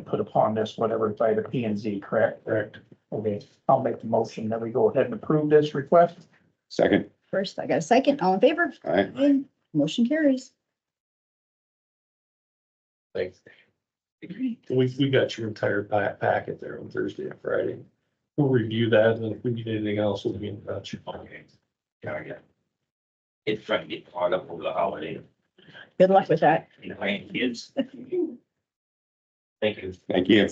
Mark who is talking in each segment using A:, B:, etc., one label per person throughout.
A: put upon this, whatever, by the P and Z, correct?
B: Correct.
A: Okay, I'll make the motion that we go ahead and approve this request.
C: Second,
D: First, I got a second. All in favor?
C: aye.
D: Aye. Motion carries.
B: Thanks. We, we got your entire pa- packet there on Thursday and Friday. We'll review that and if we need anything else, we'll be in touch.
E: Okay. Yeah, yeah. It's trying to get caught up over the holiday,
D: Good luck with that.
E: you know, and kids. Thank you.
C: Thank you.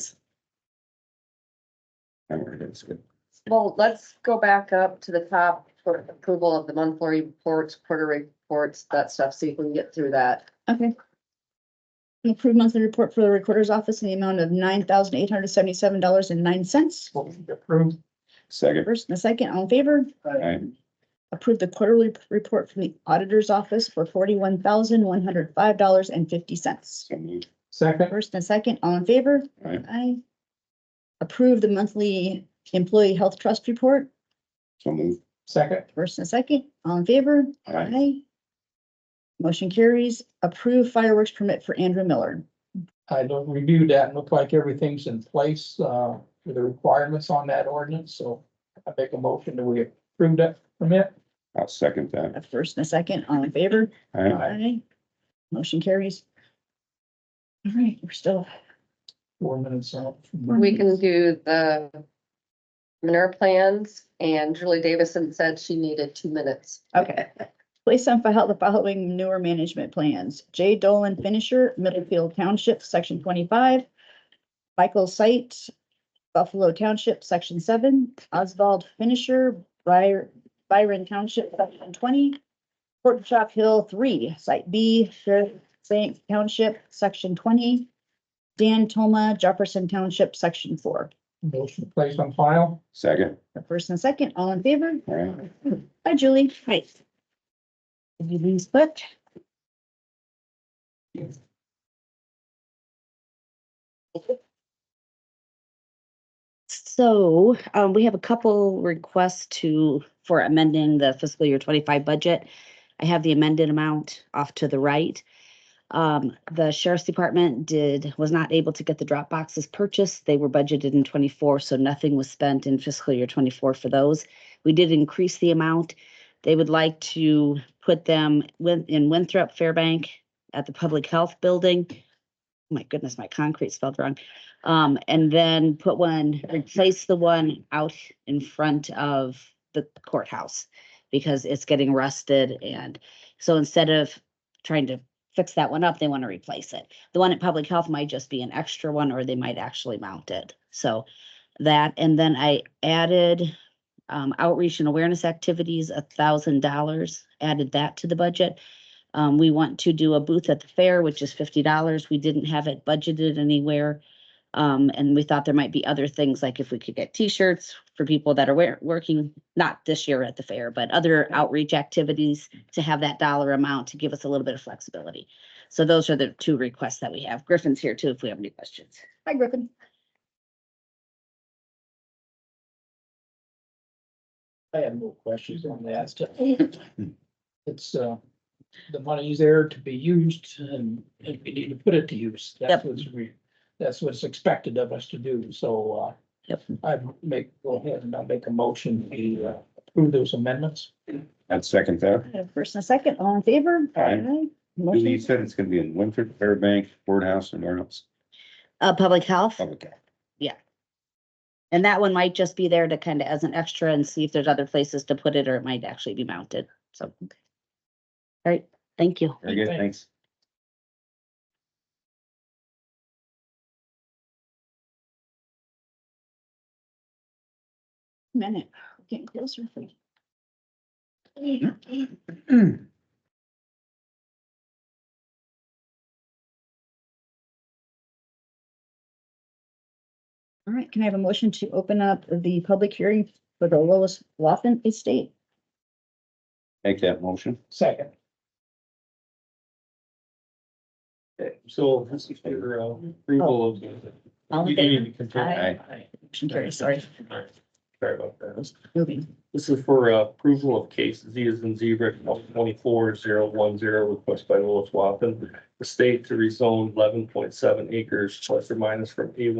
C: I heard it, it's good.
F: Well, let's go back up to the top for approval of the monthly reports, quarterly reports, that stuff, so you can get through that.
D: Okay. Approved monthly report for the recorder's office in the amount of nine thousand eight hundred seventy-seven dollars and nine cents.
A: Motion approved.
C: Second,
D: First and a second, all in favor?
C: aye.
D: Approved the quarterly report from the auditor's office for forty-one thousand one hundred five dollars and fifty cents.
C: So moved.
A: Second,
D: First and a second, all in favor?
C: Aye.
D: Aye. Approved the monthly employee health trust report.
C: So moved.
A: second,
D: First and a second, all in favor?
C: Aye.
D: Aye. Motion carries. Approve fireworks permit for Andrew Miller.
A: I don't review that and look like everything's in place, uh, for the requirements on that ordinance, so I make a motion that we approve that permit.
C: I'll second that.
D: A first and a second, all in favor?
C: Aye.
A: Aye.
D: Aye. Motion carries. All right, we're still,
A: Four minutes out.
F: We can do the manure plans, and Julie Davison said she needed two minutes.
D: okay. Place on file the following manure management plans. J Dolan Finisher, Middlefield Township, section twenty-five. Michael Site, Buffalo Township, section seven. Oswald Finisher, Byr- Byron Township, section twenty. Fort Shop Hill three, site B, Sheriff Saint Township, section twenty. Dan Toma, Jefferson Township, section four.
A: Motion placed on file.
C: Second,
D: The first and second, all in favor?
C: aye.
D: Hi, Julie. Hi. Did you lose foot?
G: So, um, we have a couple requests to, for amending the fiscal year twenty-five budget. I have the amended amount off to the right. Um, the sheriff's department did, was not able to get the drop boxes purchased. They were budgeted in twenty-four, so nothing was spent in fiscal year twenty-four for those. We did increase the amount. They would like to put them with, in Winthrop Fairbank at the Public Health Building. My goodness, my concrete spelled wrong. Um, and then put one, replace the one out in front of the courthouse because it's getting rusted and so instead of trying to fix that one up, they want to replace it. The one at Public Health might just be an extra one or they might actually mount it. So that, and then I added um, outreach and awareness activities, a thousand dollars, added that to the budget. Um, we want to do a booth at the fair, which is fifty dollars. We didn't have it budgeted anywhere. Um, and we thought there might be other things, like if we could get T-shirts for people that are wear, working, not this year at the fair, but other outreach activities to have that dollar amount to give us a little bit of flexibility. So those are the two requests that we have. Griffin's here too, if we have any questions.
D: Hi, Griffin.
A: I have no questions on that. It's, uh, the money's there to be used and, and we need to put it to use. That's
G: Yep.
A: what's we, that's what's expected of us to do, so, uh.
G: Yep.
A: I make, go ahead and I'll make a motion to uh, approve those amendments.
C: I'd second that.
D: I have First and a second, all in favor?
C: Aye.
D: Motion-
C: You said it's gonna be in Winthrop, Fairbank, Boardhouse and where else?
G: Uh, public health,
C: Okay.
G: and that one might just be there to kind of as an extra and see if there's other places to put it, or it might actually be mounted, so. All right, thank you.
C: Very good, thanks.
D: Minute, We're getting closer. All right, can I have a motion to open up the public hearing for the Lois Waffen Estate?
C: Make that motion.
A: Second,
B: So this is your uh, approval of.
G: All in
B: You need to confirm.
G: Aye.
D: Motion carries, sorry.
B: Sorry about that.
D: moving.
B: This is for uh, approval of case Z as in zebra, twenty-four zero one zero, request by Willis Wappen. The state to rezone eleven point seven acres plus or minus from A one